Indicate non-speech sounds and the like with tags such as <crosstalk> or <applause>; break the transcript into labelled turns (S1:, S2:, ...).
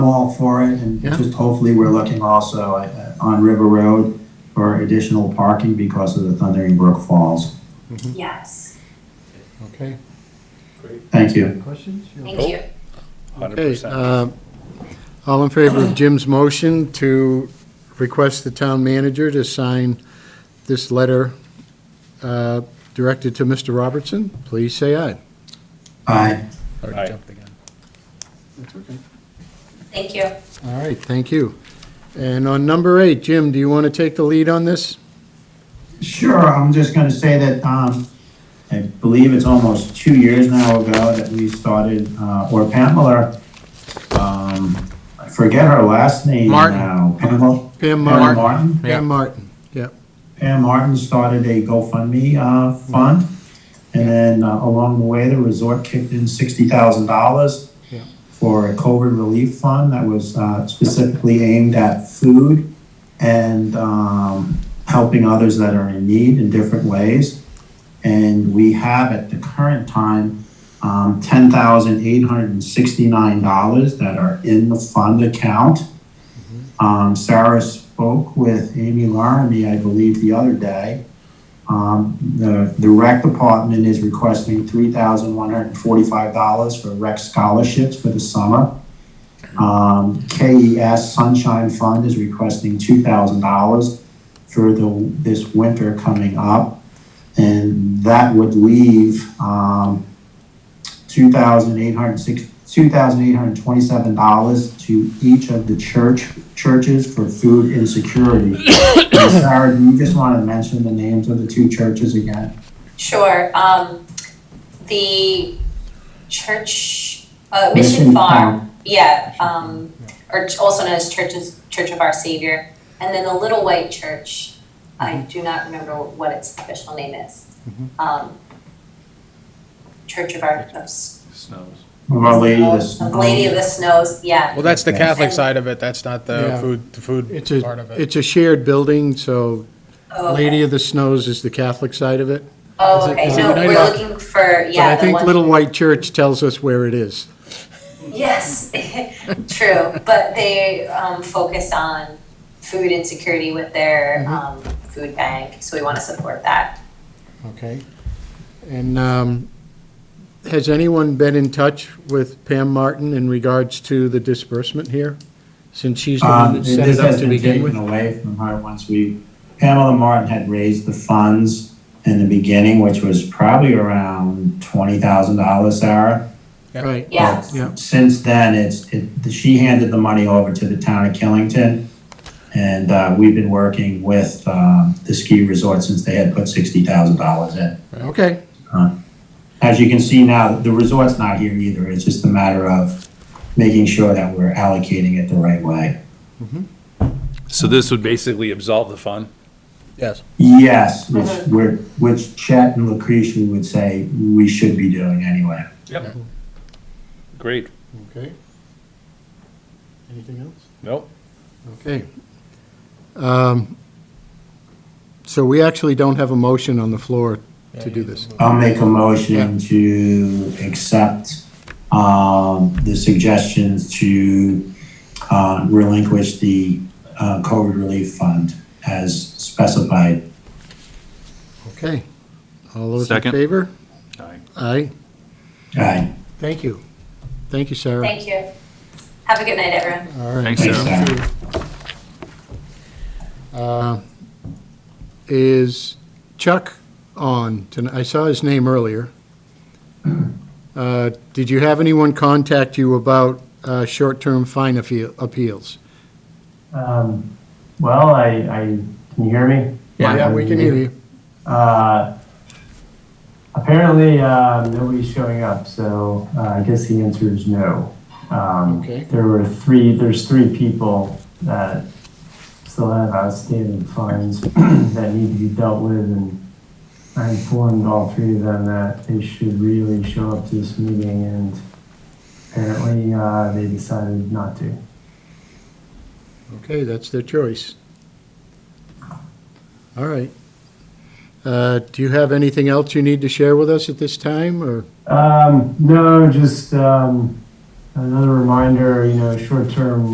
S1: all for it, and
S2: Yeah.
S1: just hopefully we're looking also uh, on River Road for additional parking because of the Thundering Brook Falls.
S3: Yes,
S2: Okay.
S1: Thank you.
S4: Questions?
S3: thank you.
S2: Okay. uh, All in favor of Jim's motion to request the town manager to sign this letter uh, directed to Mr. Robertson, please say aye.
S1: Aye.
S5: Aye.
S2: That's okay.
S3: Thank you.
S2: All right, thank you. And on number eight, Jim, do you want to take the lead on this?
S1: Sure, I'm just gonna say that, um, I believe it's almost two years now ago that we started, uh, or Pamela, um, I forget her last name
S6: Martin.
S1: now. Pamela,
S2: Pam
S1: Pam
S2: Martin.
S1: Martin?
S6: Yeah.
S2: Pam Martin, yep.
S1: Pam Martin started a GoFundMe uh, fund, and then uh, along the way, the resort kicked in sixty thousand dollars
S2: Yeah.
S1: for a COVID relief fund that was uh, specifically aimed at food and um, helping others that are in need in different ways. And we have at the current time um, ten thousand eight hundred and sixty-nine dollars that are in the fund account. Um, Sarah spoke with Amy Laramie, I believe, the other day. Um, the, the rec department is requesting three thousand one hundred and forty-five dollars for rec scholarships for the summer. Um, KES Sunshine Fund is requesting two thousand dollars for the, this winter coming up. And that would leave, um, two thousand eight hundred six, two thousand eight hundred twenty-seven dollars to each of the church, churches for food insecurity. <coughs> And Sarah, do you just want to mention the names of the two churches again?
S3: Sure, um, the church, uh, Mission Farm, yeah, um, or ch- also known as Churches, Church of Our Savior, and then the Little White Church. I
S1: Mm-hmm.
S3: do not remember what its official name is. Um, Church of Our, of S-
S5: Snows.
S1: Farm, Our Lady of the
S3: of Lady of the Snows, yeah.
S6: Well, that's the
S1: Yeah.
S6: Catholic side of it, that's not the
S2: Yeah.
S6: food, the food
S2: It's
S6: part
S2: a,
S6: of it.
S2: it's a shared building, so
S3: Oh, okay.
S2: Lady of the Snows is the Catholic side of it. is
S3: Oh,
S2: it-
S3: okay,
S2: is it
S3: no,
S2: United
S3: we're
S2: Ar-
S3: looking for,
S2: But I
S3: yeah, the
S2: think
S3: one.
S2: Little White Church tells us where it is.
S3: Yes, <laughs> true, but they um, focus on food insecurity with their um, food bank, so we want to support that.
S2: Okay. And um, has anyone been in touch with Pam Martin in regards to the disbursement here? Since she's the one
S1: Um,
S2: that set
S1: this
S2: it up
S1: has
S2: to
S1: been
S2: begin
S1: taken
S2: with?
S1: away from her once we, Pamela Martin had raised the funds in the beginning, which was probably around twenty thousand dollars, Sarah.
S6: Yeah.
S2: Right.
S3: Yeah.
S1: But
S2: Yeah.
S1: Since then, it's, it, she handed the money over to the town of Killington. And, uh, we've been working with, um, the ski resort since they had put sixty thousand dollars in.
S2: Okay,
S1: As you can see now, the resort's not here either. It's just a matter of making sure that we're allocating it the right way.
S5: So this would basically absolve the fund?
S6: Yes.
S1: Yes, which, we're- which Chet and Lucretia would say we should be doing anyway.
S5: Yep. Great.
S2: okay. Anything else?
S5: Nope.
S2: Okay. Um, So we actually don't have a motion on the floor to do this.
S1: I'll make a motion to accept um, the suggestions to uh, relinquish the uh, COVID relief fund as specified.
S2: Okay. All those in
S5: Second.
S2: favor?
S5: Aye.
S2: Aye.
S1: Aye.
S2: Thank you. Thank you, Sarah.
S3: Thank you. Have a good night, everyone.
S2: All right.
S5: Thanks,
S1: Thanks,
S5: Sarah.
S1: Sarah.
S2: Uh, Is Chuck on tonight? I saw his name earlier. Uh, Did you have anyone contact you about uh, short-term fine appeal- appeals?
S7: Um, well, I, I, can you hear me?
S2: Yeah, we can hear you.
S7: Uh, apparently, um, nobody's showing up, so uh, I guess the answer is no. Um,
S2: Okay.
S7: There were three, there's three people that still have outstanding fines <clears throat> that need to be dealt with, and I informed all three of them that they should really show up to this meeting, and apparently, uh, they decided not to.
S2: Okay, that's their choice. All right. Uh, Do you have anything else you need to share with us at this time, or?
S7: Um, no, just um, Another reminder, you know, short-term